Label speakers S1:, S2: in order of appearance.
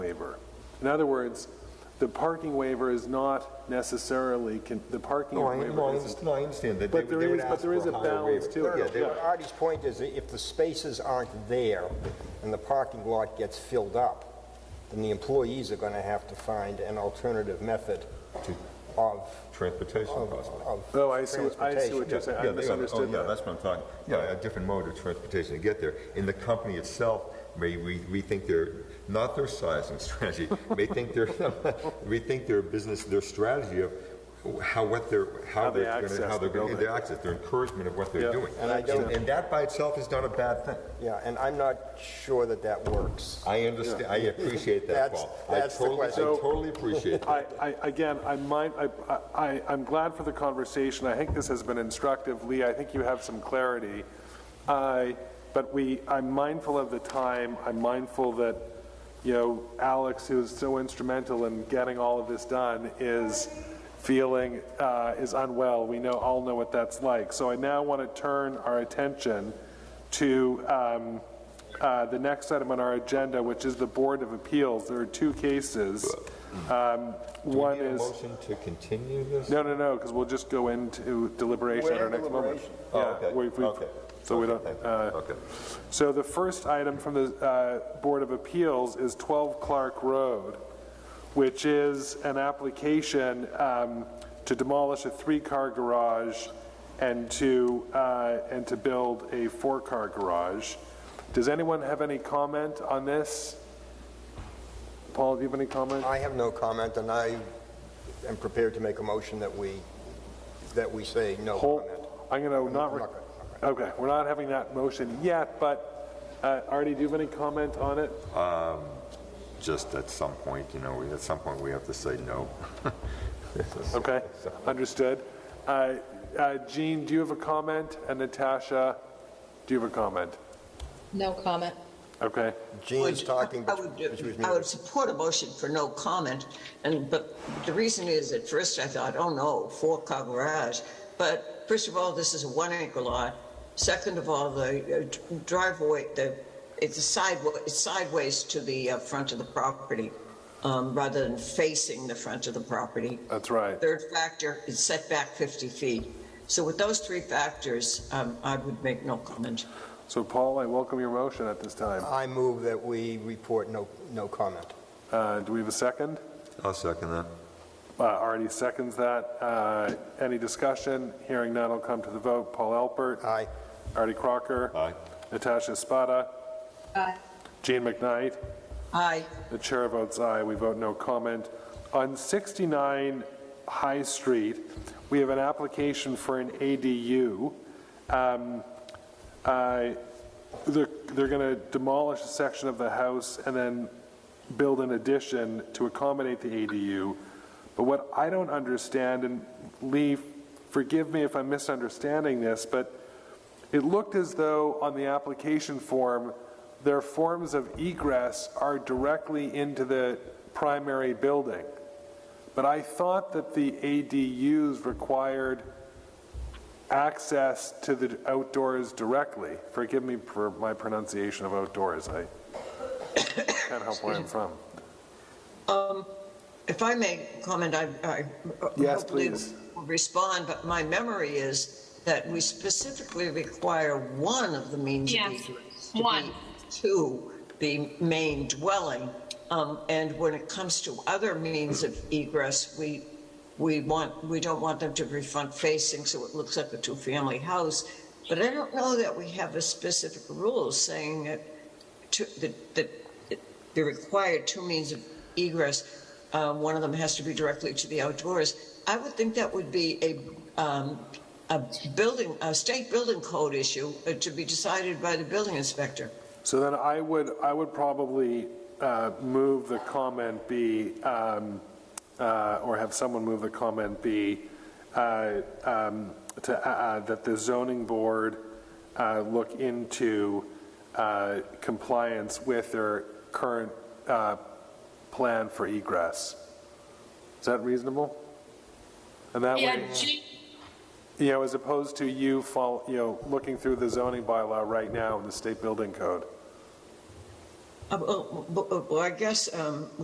S1: waiver. In other words, the parking waiver is not necessarily, con- the parking
S2: No, I, no, I
S1: waiver isn't.
S2: understand, no, I understand that.
S1: But
S2: they would-
S1: there
S2: they would
S1: is- but
S2: ask
S1: there
S2: for
S1: is a
S2: higher
S1: balance
S2: waiver.
S1: to it.
S2: Yeah,
S1: No,
S2: they
S1: no,
S2: would-
S3: Artie's point is that if the spaces aren't there and the parking lot gets filled up, then the employees are going to have to find an alternative method of,
S2: Transportation
S3: of,
S2: possibly.
S3: of
S1: Oh, I see, what- I see what
S3: transportation.
S1: you're saying,
S2: Yeah,
S1: I
S2: they- oh,
S1: misunderstood
S2: Yeah,
S1: that.
S2: that's what I'm talking, yeah, a different mode of transportation to get there. And the company itself may re- rethink their, not their sizing strategy, may think their, rethink their business, their strategy of how, what they're,
S1: How
S2: how
S1: they
S2: they're gonna,
S1: access
S2: how
S1: the
S2: they're gonna,
S1: building.
S2: their access, their encouragement of what
S1: Yeah,
S2: they're doing.
S3: and I don't-
S2: And that by itself is not a bad thing.
S3: Yeah, and I'm not sure that that works.
S2: I understand, I appreciate that,
S3: That's-
S2: Paul. I
S3: that's the
S2: totally-
S3: question.
S2: I totally appreciate that.
S1: I, I, again, I'm mind, I, I, I'm glad for the conversation, I think this has been instructive, Lee, I think you have some clarity. I, but we, I'm mindful of the time, I'm mindful that, you know, Alex, who was so instrumental in getting all of this done, is feeling, uh, is unwell, we know, all know what that's like. So I now want to turn our attention to, um, uh, the next item on our agenda, which is the Board of Appeals. There are two cases. Um, One
S2: Need a
S1: is,
S2: motion to continue this?
S1: no, no, no, because we'll just go into deliberation at our
S3: We're in
S1: next moment.
S3: deliberation.
S2: Oh,
S1: Yeah,
S2: okay,
S1: we've- we've-
S2: okay.
S1: So we
S2: Okay,
S1: don't,
S2: thank you.
S1: uh,
S2: Okay.
S1: so the first item from the uh, Board of Appeals is 12 Clark Road, which is an application um, to demolish a three-car garage and to, uh, and to build a four-car garage. Does anyone have any comment on this? Paul, do you have any comment?
S3: I have no comment, and I am prepared to make a motion that we, that we say no
S1: Hold-
S3: comment.
S1: I'm going to not, re-
S3: not
S1: okay, we're not having that motion yet, but uh, Artie, do you have any comment on it?
S2: Just at some point, you know, we- at some point, we have to say no.
S1: Okay, understood. Uh, uh, Jean, do you have a comment? And Natasha, do you have a comment?
S4: No comment.
S1: Okay,
S3: Jean's
S5: would-
S3: talking,
S5: I
S3: but
S5: would,
S3: she was
S5: I would
S3: muted.
S5: support a motion for no comment, and, but the reason is, at first I thought, oh no, four-car garage, but first of all, this is a one-acre lot, second of all, the uh, driveway, the, it's a sideway, it's sideways to the uh, front of the property, um, rather than facing the front of the property.
S1: that's right.
S5: Third factor is setback 50 feet. So with those three factors, um, I would make no comment.
S1: So Paul, I welcome your motion at this time.
S3: I move that we report no, no comment.
S1: Uh, Do we have a second?
S2: I'll second that.
S1: Uh, Artie seconds that. Uh, Any discussion? Hearing none, I'll come to the vote. Paul Alpert.
S3: Aye.
S1: Artie Crocker.
S2: Aye.
S1: Natasha Spada.
S4: Aye.
S1: Jean McKnight.
S5: Aye.
S1: The chair votes aye, we vote no comment. On 69 High Street, we have an application for an ADU. Um, I- They're going to demolish a section of the house and then build an addition to accommodate the ADU. But what I don't understand, and Lee, forgive me if I'm misunderstanding this, but it looked as though on the application form, their forms of egress are directly into the primary building. But I thought that the ADUs required access to the outdoors directly. Forgive me for my pronunciation of outdoors. I can't help where I'm from.
S5: Um, If I may comment, I, I
S1: Yes,
S5: hopefully
S1: please.
S5: will respond, but my memory is that we specifically require one of the means of
S6: Yes,
S5: egress to be-
S6: one.
S5: to the main dwelling. Um, and when it comes to other means of egress, we we want we don't want them to be front facing, so it looks like a two family house. But I don't know that we have a specific rule saying that two, that, that they require two means of egress. Uh, one of them has to be directly to the outdoors. I would think that would be a, um, a building, a state building code issue uh, to be decided by the building inspector.
S1: So then I would, I would probably uh, move the comment be, um, uh, or have someone move the comment be, uh, um, to, uh, uh, that the zoning board uh, look into uh, compliance with their current uh, plan for egress. Is that reasonable? And that
S6: Yeah,
S1: way,
S6: Jean,
S1: you know, as opposed to you fall, you know, looking through the zoning bylaw right now in the state building code.
S5: Uh, Well, well, I guess um,